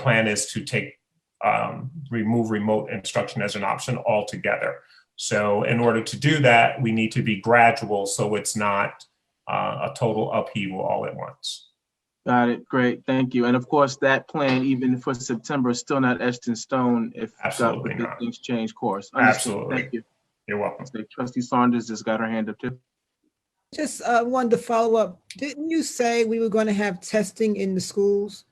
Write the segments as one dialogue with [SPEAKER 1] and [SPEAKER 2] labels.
[SPEAKER 1] plan is to take, um, remove remote instruction as an option altogether. So in order to do that, we need to be gradual, so it's not uh, a total upheaval all at once.
[SPEAKER 2] Got it. Great. Thank you. And of course, that plan, even for September, is still not etched in stone if God
[SPEAKER 1] Absolutely
[SPEAKER 2] forbid
[SPEAKER 1] not.
[SPEAKER 2] things change course. Understood.
[SPEAKER 1] Absolutely.
[SPEAKER 2] Thank you.
[SPEAKER 1] You're welcome.
[SPEAKER 2] So Trustee Saunders has got her hand up too.
[SPEAKER 3] Just uh, wanted to follow up. Didn't you say we were going to have testing in the schools?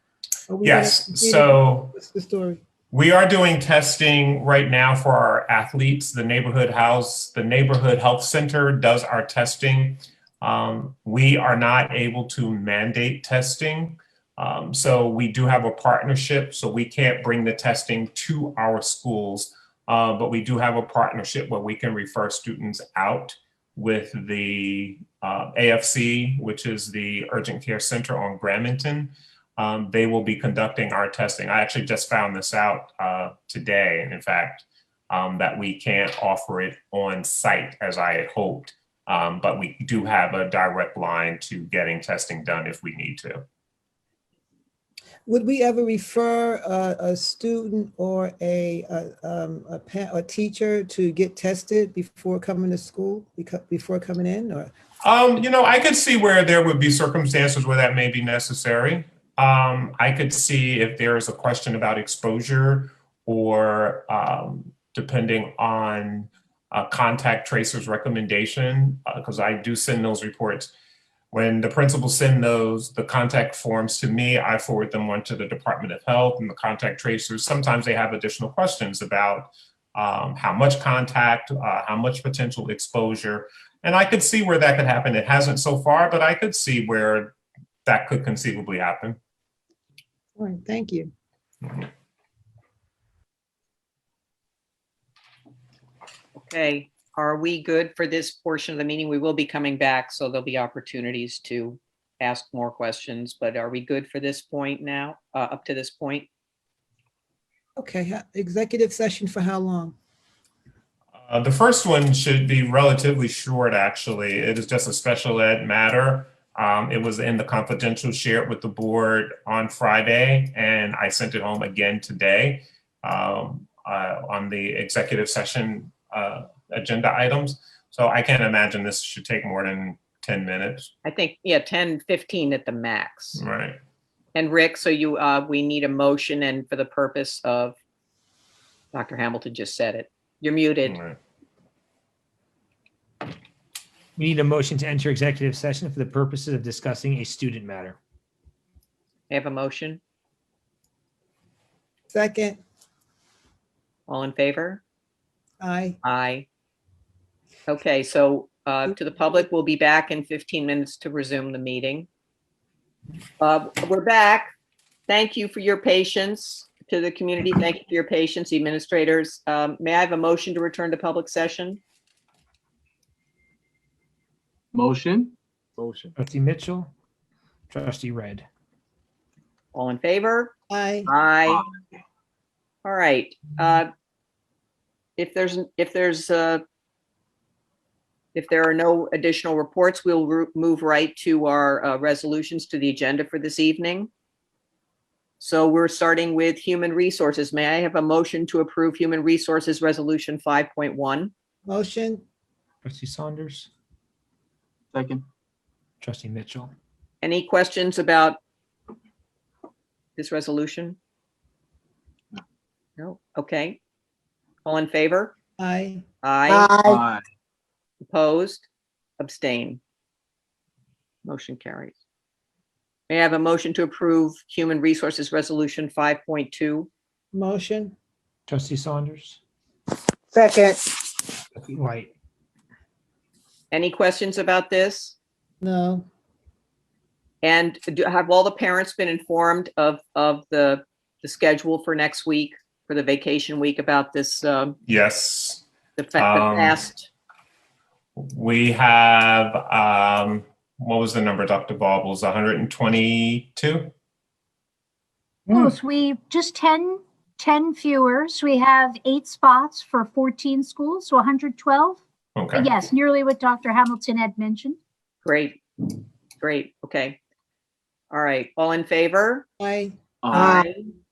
[SPEAKER 3] Are we gonna
[SPEAKER 1] Yes,
[SPEAKER 3] continue?
[SPEAKER 1] so
[SPEAKER 3] What's the story?
[SPEAKER 1] we are doing testing right now for our athletes. The neighborhood house, the neighborhood health center does our testing. Um, we are not able to mandate testing. Um, so we do have a partnership, so we can't bring the testing to our schools. Uh, but we do have a partnership where we can refer students out with the uh, AFC, which is the Urgent Care Center on Graminton um, they will be conducting our testing. I actually just found this out uh, today, in fact, um, that we can't offer it on site as I had hoped, um, but we do have a direct line to getting testing done if we need to.
[SPEAKER 3] Would we ever refer uh, a student or a, uh, um, a pa- a teacher to get tested before coming to school, becau- before coming in? Or
[SPEAKER 1] Um, you know, I could see where there would be circumstances where that may be necessary. Um, I could see if there is a question about exposure or um, depending on a contact tracer's recommendation, because I do send those reports. When the principals send those, the contact forms to me, I forward them on to the Department of Health and the contact tracers. Sometimes they have additional questions about um, how much contact, uh, how much potential exposure. And I could see where that could happen. It hasn't so far, but I could see where that could conceivably happen.
[SPEAKER 3] All right, Thank you.
[SPEAKER 4] Okay, are we good for this portion of the meeting? We will be coming back, so there'll be opportunities to ask more questions, but are we good for this point now, uh, up to this point?
[SPEAKER 3] Okay, ha- executive session for how long?
[SPEAKER 1] Uh, the first one should be relatively short, actually. It is just a special ed matter. Um, it was in the confidential shared with the board on Friday, and I sent it home again today um, uh, on the executive session uh, agenda items. So I can't imagine this should take more than 10 minutes,
[SPEAKER 4] I think, yeah, 10, 15 at the max.
[SPEAKER 1] right?
[SPEAKER 4] And Rick, so you, uh, we need a motion and for the purpose of, Dr. Hamilton just said it, you're muted.
[SPEAKER 1] Right.
[SPEAKER 5] We need a motion to enter executive session for the purposes of discussing a student matter.
[SPEAKER 4] I Have a motion?
[SPEAKER 3] Second,
[SPEAKER 4] All in favor?
[SPEAKER 3] aye.
[SPEAKER 4] Aye. Okay, so uh, to the public, we'll be back in 15 minutes to resume the meeting. Uh, We're back. Thank you for your patience to the community. Thank you for your patience, the administrators. Um, May I have a motion to return to public session?
[SPEAKER 2] Motion?
[SPEAKER 5] Trustee Mitchell, trustee Red.
[SPEAKER 4] All in favor?
[SPEAKER 3] Aye.
[SPEAKER 4] Aye. All right. uh, If there's, if there's, uh, if there are no additional reports, we'll ru- move right to our uh, resolutions to the agenda for this evening. So we're starting with human resources. May I have a motion to approve human resources resolution 5.1?
[SPEAKER 3] Motion,
[SPEAKER 5] Trustee Saunders,
[SPEAKER 2] Second?
[SPEAKER 5] trustee Mitchell.
[SPEAKER 4] Any questions about this resolution? No? Okay. All in favor?
[SPEAKER 3] aye.
[SPEAKER 4] Aye.
[SPEAKER 2] Aye.
[SPEAKER 4] Opposed? Abstain? Motion carries. May I have a motion to approve Human Resources Resolution 5.2?
[SPEAKER 3] Motion,
[SPEAKER 5] Trustee Saunders,
[SPEAKER 6] Second,
[SPEAKER 5] trustee White,
[SPEAKER 4] Any questions about this?
[SPEAKER 3] no.
[SPEAKER 4] And do- have all the parents been informed of, of the, the schedule for next week, for the vacation week about this, um,
[SPEAKER 1] Yes.
[SPEAKER 4] the fa- the
[SPEAKER 1] Um,
[SPEAKER 4] fast?
[SPEAKER 1] We have, um, what was the number, Dr. Baubles, hundred and twenty-two?
[SPEAKER 7] Close. We just 10, 10 fewer. So we have eight spots for 14 schools, so 112.
[SPEAKER 1] Okay,
[SPEAKER 7] But Yes, nearly what Dr. Hamilton had mentioned.
[SPEAKER 4] Great, great, okay. All right, all in favor?
[SPEAKER 3] Aye.
[SPEAKER 2] Aye.
[SPEAKER 4] Aye.